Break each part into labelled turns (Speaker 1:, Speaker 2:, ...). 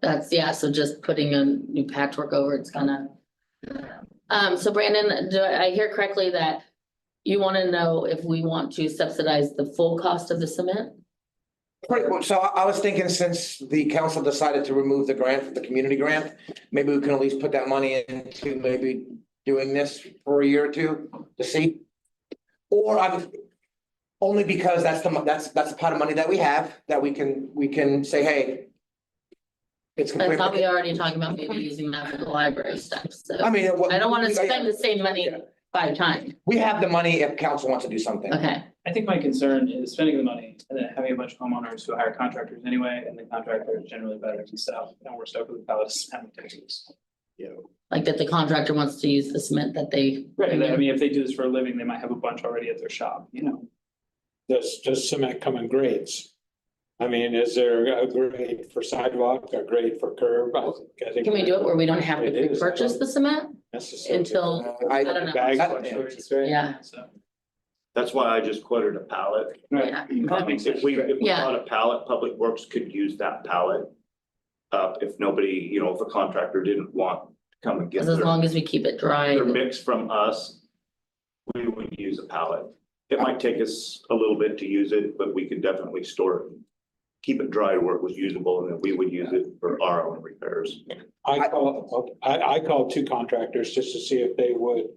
Speaker 1: That's, yeah, so just putting a new patchwork over, it's gonna. Um, so Brandon, do I hear correctly that you wanna know if we want to subsidize the full cost of the cement?
Speaker 2: Pretty much. So I I was thinking since the council decided to remove the grant, the community grant, maybe we can at least put that money into maybe doing this for a year or two to see. Or I'm, only because that's the, mo- that's, that's the pot of money that we have, that we can, we can say, hey. It's
Speaker 1: I
Speaker 2: completely.
Speaker 1: thought we were already talking about maybe using that for the library stuff,
Speaker 2: I
Speaker 1: so
Speaker 2: mean. what-
Speaker 1: I don't wanna
Speaker 2: we-
Speaker 1: spend the same money five times,
Speaker 2: We have the money if council wants to do something.
Speaker 1: okay?
Speaker 3: I think my concern is spending the money and then having a bunch of homeowners who hire contractors anyway, and the contractor is generally better than stuff, and we're stuck with the palace having taxes.
Speaker 1: Like that the contractor wants to use the cement that they.
Speaker 3: And then, I mean, if they do this for a living, they might have a bunch already at their shop, you know?
Speaker 4: Does, does cement come in grades? I mean, is there a grade for sidewalk, a grade for curb? I think- I think
Speaker 1: Can we do it where we don't have to
Speaker 4: It is, I don't-
Speaker 1: purchase the cement?
Speaker 4: Necessary.
Speaker 1: Until,
Speaker 2: Uh, I,
Speaker 1: I don't know.
Speaker 4: Bag
Speaker 2: That-
Speaker 4: fluctuates, right?
Speaker 1: yeah,
Speaker 3: So.
Speaker 5: That's why I just quoted a pallet.
Speaker 1: yeah,
Speaker 3: That makes sense.
Speaker 5: If we, if we
Speaker 1: Yeah.
Speaker 5: bought a pallet, Public Works could use that pallet. Uh, if nobody, you know, if a contractor didn't want to come and get
Speaker 1: as as
Speaker 5: their,
Speaker 1: long as we keep it dry.
Speaker 5: their mix from us, we would use a pallet. It might take us a little bit to use it, but we could definitely store it. Keep it dry where it was usable and then we would use it for our own repairs.
Speaker 4: I call, I, I called two contractors just to see if they would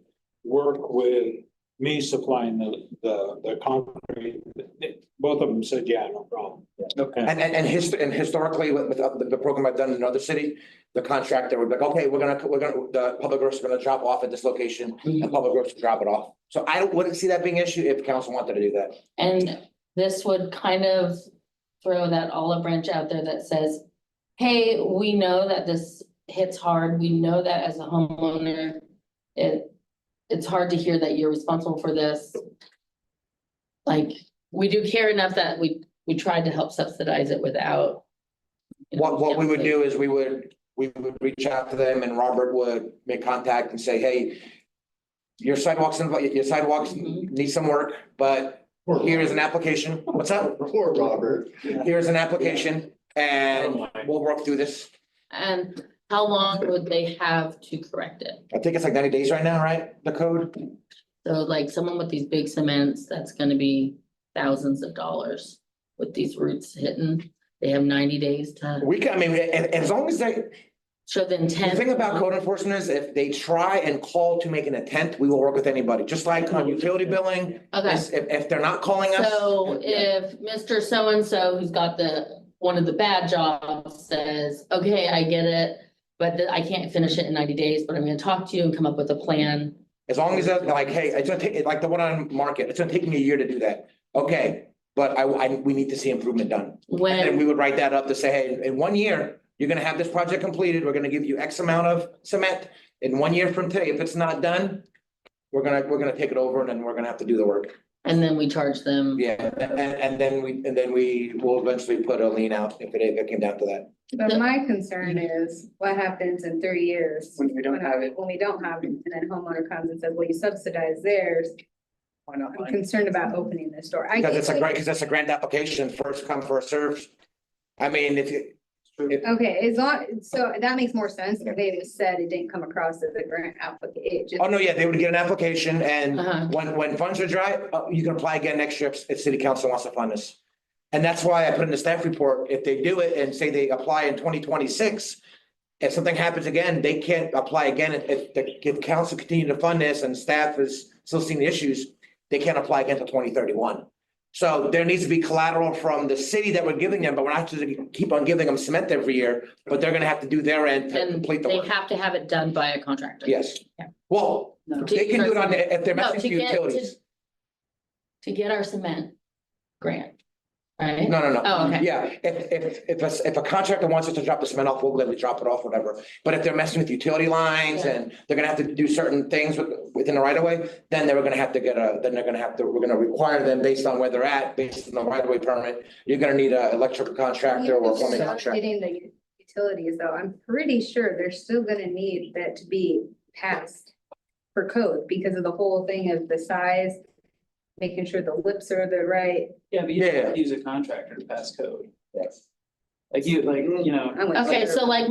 Speaker 4: work with me supplying the, the, the concrete. Both of them said, yeah, no problem. Okay.
Speaker 2: And, and, and hist- and historically, with, with the, the program I've done in another city, the contractor would be like, okay, we're gonna, we're gonna, the public works are gonna drop off at this location, and public works will drop it off. So I don't- wouldn't see that being an issue if council wanted to do that.
Speaker 1: And this would kind of throw that olive branch out there that says, hey, we know that this hits hard. We know that as a homeowner, it, it's hard to hear that you're responsible for this. Like, we do care enough that we, we tried to help subsidize it without. you know,
Speaker 2: What, what we would do is we would, we would reach out to them and Robert would make contact and say, hey, your sidewalks, inv- your sidewalks
Speaker 6: Mm-hmm.
Speaker 1: Mhm.
Speaker 2: need some work, but here is an application. What's up?
Speaker 6: Poor Robert.
Speaker 2: Here's an application and we'll work through this.
Speaker 1: And how long would they have to correct it?
Speaker 2: I think it's like ninety days right now, right? The code?
Speaker 1: So like someone with these big cements, that's gonna be thousands of dollars with these roots hitting. They have ninety days to
Speaker 2: We can, I mean, a- a- as long as they,
Speaker 1: show the
Speaker 2: the
Speaker 1: intent.
Speaker 2: thing about code enforcement is if they try and call to make an attempt, we will work with anybody, just like on utility billing.
Speaker 1: Okay,
Speaker 2: If, if they're not calling us.
Speaker 1: so if Mr. So-and-so who's got the, one of the bad jobs says, okay, I get it. But th- I can't finish it in ninety days, but I'm gonna talk to you and come up with a plan.
Speaker 2: As long as they're like, hey, it's gonna take, like the one on market, it's gonna take me a year to do that. Okay, but I, I, we need to see improvement done. And then
Speaker 1: When,
Speaker 2: we would write that up to say, hey, in one year, you're gonna have this project completed. We're gonna give you X amount of cement. In one year from today, if it's not done, we're gonna, we're gonna take it over and then we're gonna have to do the work.
Speaker 1: and then we charge them.
Speaker 2: Yeah, and, and then we, and then we will eventually put a lien out if it, if it came down to that.
Speaker 1: The-
Speaker 7: But my concern is what happens in three years?
Speaker 3: When we don't
Speaker 7: when I-
Speaker 3: have it,
Speaker 7: When we don't have it, and then homeowner comes and says, well, you subsidize theirs,
Speaker 3: why not?
Speaker 7: I'm concerned about opening this door. I
Speaker 2: Because
Speaker 7: get
Speaker 2: it's a
Speaker 7: what-
Speaker 2: grant, because it's a grant application, first come, first served. I mean, if you,
Speaker 7: Okay, as long, so that makes more sense, if they just said it didn't come across as a grant application, it just.
Speaker 2: oh, no, yeah, they would get an application and
Speaker 1: Uh-huh.
Speaker 2: when, when funds are dry, uh, you can apply again next year if, if city council wants to fund this. And that's why I put in the staff report, if they do it and say they apply in twenty twenty-six, if something happens again, they can't apply again. If- If, the- if council continue to fund this and staff is still seeing the issues, they can't apply again until twenty thirty-one. So there needs to be collateral from the city that we're giving them, but we're not just gonna keep on giving them cement every year, but they're gonna have to do their end to
Speaker 1: And
Speaker 2: complete the
Speaker 1: they
Speaker 2: work.
Speaker 1: have to have it done by a contractor.
Speaker 2: Yes.
Speaker 1: Yeah.
Speaker 2: Well,
Speaker 3: No.
Speaker 2: they can do it on, if they're
Speaker 1: No,
Speaker 2: messing
Speaker 1: to
Speaker 2: with
Speaker 1: get- to-
Speaker 2: utilities.
Speaker 1: To get our cement grant, right?
Speaker 2: No, no, no.
Speaker 1: Oh, okay.
Speaker 2: Yeah, if, if, if, a- if a contractor wants us to drop the cement off, we'll gladly drop it off, whatever. But if they're messing with utility lines
Speaker 1: Yeah.
Speaker 2: and they're gonna have to do certain things with, within the right of way, then they're gonna have to get a, then they're gonna have to, we're gonna require them based on where they're at, based on the right of way permit. You're gonna need a electrical contractor or a
Speaker 7: Even if
Speaker 2: plumbing
Speaker 7: they're
Speaker 2: contractor.
Speaker 7: Getting the utilities though, I'm pretty sure they're still gonna need that to be passed for code because of the whole thing of the size, making sure the lips are the right.
Speaker 3: Yeah, but you
Speaker 2: Yeah.
Speaker 3: don't use a contractor to pass code.
Speaker 2: Yes.
Speaker 8: Like you, like, you know.
Speaker 3: I'm with
Speaker 1: Okay,
Speaker 3: you.
Speaker 1: so like